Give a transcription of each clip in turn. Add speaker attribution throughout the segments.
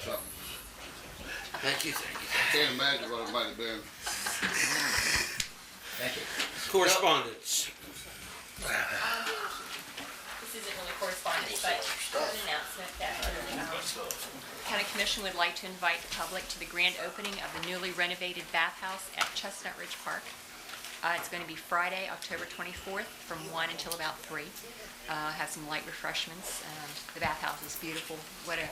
Speaker 1: something.
Speaker 2: Thank you, thank you.
Speaker 1: I can't imagine what it might have been.
Speaker 2: Thank you.
Speaker 3: Correspondence.
Speaker 4: This isn't really correspondence, but an announcement that the um, county commission would like to invite the public to the grand opening of the newly renovated bathhouse at Chestnut Ridge Park. Uh, It's going to be Friday, October 24th, from 1 until about 3. Uh, Have some light refreshments. Um, The bathhouse is beautiful. What a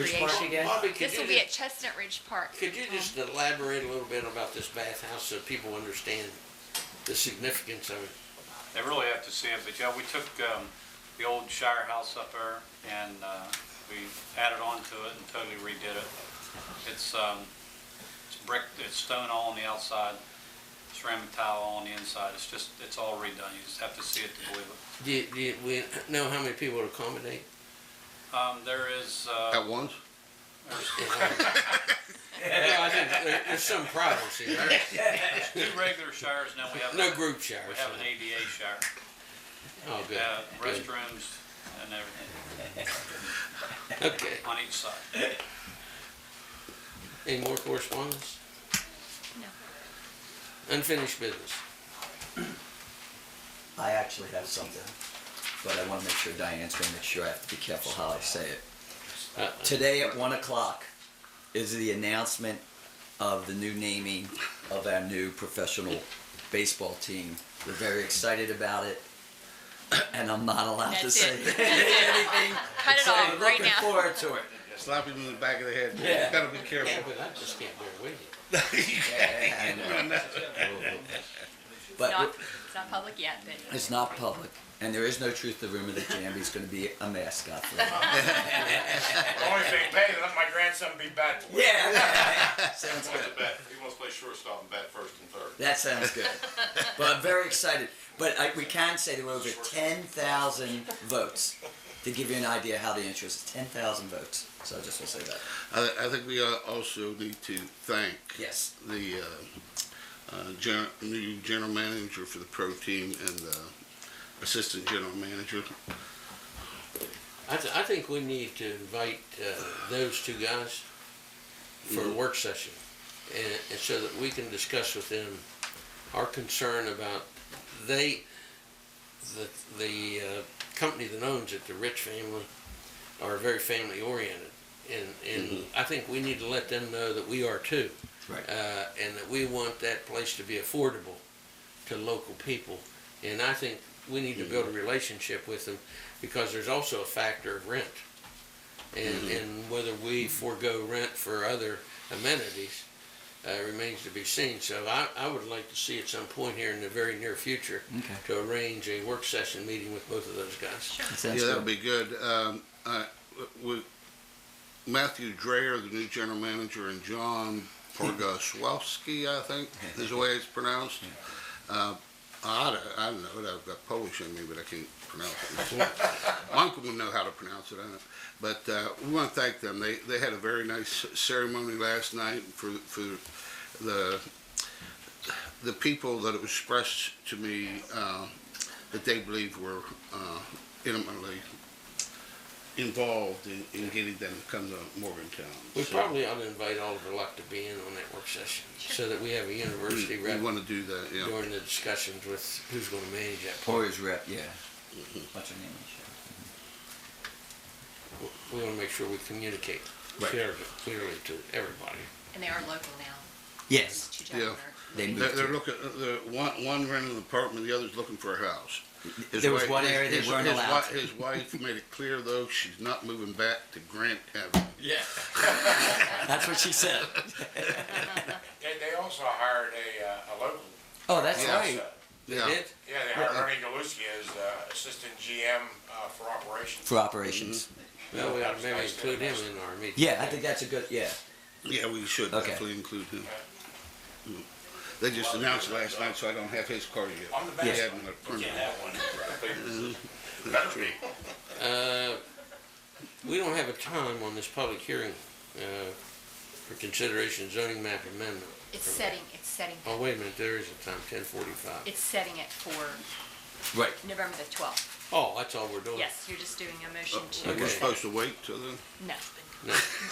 Speaker 2: Which park
Speaker 4: creation.
Speaker 2: again?
Speaker 3: Bobby, could
Speaker 4: This
Speaker 3: you
Speaker 4: will be at
Speaker 3: just,
Speaker 4: Chestnut Ridge Park.
Speaker 3: could you just elaborate a little bit about this bathhouse so people understand the significance of it?
Speaker 5: They really have to see it, but yeah, we took um, the old Shire House up there and uh, we added on to it and totally redid it. It's, um, it's brick, it's stone all on the outside, ceramic tile all on the inside. It's just, it's all redone. You just have to see it to believe it.
Speaker 3: Do, you- do you- we know how many people to accommodate?
Speaker 5: Um, There is, uh,
Speaker 1: At once?
Speaker 5: there's
Speaker 3: No, I think there- there's some problems here. right?
Speaker 5: two regular showers and then we have,
Speaker 3: No
Speaker 5: a-
Speaker 3: group showers.
Speaker 5: we uh, have an ADA shower.
Speaker 3: Oh, good.
Speaker 5: Yeah,
Speaker 3: good.
Speaker 5: Restrooms and everything
Speaker 3: Okay.
Speaker 5: on each side.
Speaker 3: Any more correspondence?
Speaker 4: No.
Speaker 3: Unfinished business.
Speaker 6: I actually have something, but I want to make sure Diane's going to make sure I have to be careful how I say it.
Speaker 3: Uh,
Speaker 6: Today at one o'clock is the announcement of the new naming of our new professional baseball team. We're very excited about it, and I'm not allowed to
Speaker 4: That's
Speaker 6: say
Speaker 4: it.
Speaker 6: anything.
Speaker 4: Cut it off right
Speaker 6: Looking
Speaker 4: now.
Speaker 6: forward to it.
Speaker 1: Slap him in the back of the head.
Speaker 6: Yeah.
Speaker 1: Gotta be
Speaker 3: Yeah,
Speaker 1: careful.
Speaker 3: but I just can't bear with you.
Speaker 6: And, uh,
Speaker 4: It's
Speaker 6: But
Speaker 4: Um, not- It's not public yet, but
Speaker 6: it's not public, and there is no truth to the rumor that Jambi's going to be a mascot. For them.
Speaker 7: Only if they pay, let my grandson be bat.
Speaker 6: Yeah, sounds good.
Speaker 7: He wants to play shortstop and bat first and third.
Speaker 6: That sounds good. but I'm very excited. But I, we can say there were over 10,000 votes. To give you an idea how the interest is 10,000 votes. So I just will say that.
Speaker 1: I, I think we uh, also need to thank
Speaker 6: Yes.
Speaker 1: the uh, uh, gen- new general manager for the pro team and the assistant general manager.
Speaker 3: I, th- I think we need to invite uh, those two guys for a work session, and, and so that we can discuss with them our concern about they, the the uh, company that owns it, the Rich family, are very family oriented, and and I think we need to let them know that we are too,
Speaker 6: Right.
Speaker 3: uh, and that we want that place to be affordable to local people, and I think we need to build a relationship with them because there's also a factor of rent. And,
Speaker 1: Mm-hmm.
Speaker 3: and whether we forego rent for other amenities uh, remains to be seen. So I, I would like to see at some point here in the very near future
Speaker 6: Okay.
Speaker 3: to arrange a work session meeting with both of those guys.
Speaker 6: That sounds
Speaker 1: yeah, that would
Speaker 6: good.
Speaker 1: be good. Um, uh, with Matthew Dreyer, the new general manager, and John Porgoszewski, I think is the way it's pronounced. Uh, I, don't- I don't know it. I've got Polish in me, but I can't pronounce it. My uncle will know how to pronounce it. I don't. But uh, we want to thank them. They they had a very nice ceremony last night for for the the people that it was expressed to me uh, that they believe were uh, intimately involved in, in getting them to come to Morgantown.
Speaker 3: We
Speaker 1: So,
Speaker 3: probably ought to invite Oliver Luck to be in on that work session so that we have a
Speaker 1: we,
Speaker 3: university
Speaker 1: Mm, we
Speaker 3: rep
Speaker 1: want to do that. Yeah.
Speaker 3: during the discussions with who's going to manage that.
Speaker 6: Poirier's rep, yeah. What's her name? Michelle?
Speaker 3: We want to make sure we communicate
Speaker 6: Right.
Speaker 3: clearly, clearly to everybody.
Speaker 4: and they are local now.
Speaker 6: Yes.
Speaker 4: Two
Speaker 1: Yeah.
Speaker 4: gentlemen are-
Speaker 6: They moved
Speaker 1: They're, they're
Speaker 6: to-
Speaker 1: looking. The one one renting an apartment, the other's looking for a house. His
Speaker 6: There was
Speaker 1: wife-
Speaker 6: one area they
Speaker 1: his,
Speaker 6: weren't
Speaker 1: his,
Speaker 6: allowed
Speaker 1: wi-
Speaker 6: to.
Speaker 1: His wife made it clear though she's not moving back to Grant Avenue.
Speaker 6: That's what she said.
Speaker 7: They, they also hired a, uh, a local.
Speaker 6: Oh, that's
Speaker 1: Yeah.
Speaker 6: right.
Speaker 1: Yeah.
Speaker 3: Did?
Speaker 7: Yeah, they hired Ernie Galuski as uh, assistant GM uh, for operations.
Speaker 6: For operations.
Speaker 1: Mm-hmm.
Speaker 3: Well, we ought to maybe include him in our meeting.
Speaker 6: Yeah, I think that's a good, yeah.
Speaker 1: Yeah, we should
Speaker 6: Okay.
Speaker 1: definitely include him. Mm. They just announced last night, so I don't have his card yet.
Speaker 7: I'm the best
Speaker 1: They
Speaker 7: one.
Speaker 1: haven't approved it.
Speaker 7: Better be.
Speaker 3: Uh, We don't have a time on this public hearing uh, for consideration zoning map amendment.
Speaker 4: It's setting, it's setting,
Speaker 3: Oh, wait a minute, there is a time, ten forty-five.
Speaker 4: it's setting it for
Speaker 6: Right.
Speaker 4: November the 12th.
Speaker 3: Oh, that's all we're doing?
Speaker 4: Yes, you're just doing a motion
Speaker 1: We're
Speaker 4: to,
Speaker 1: supposed to wait till then?
Speaker 4: no.
Speaker 3: No.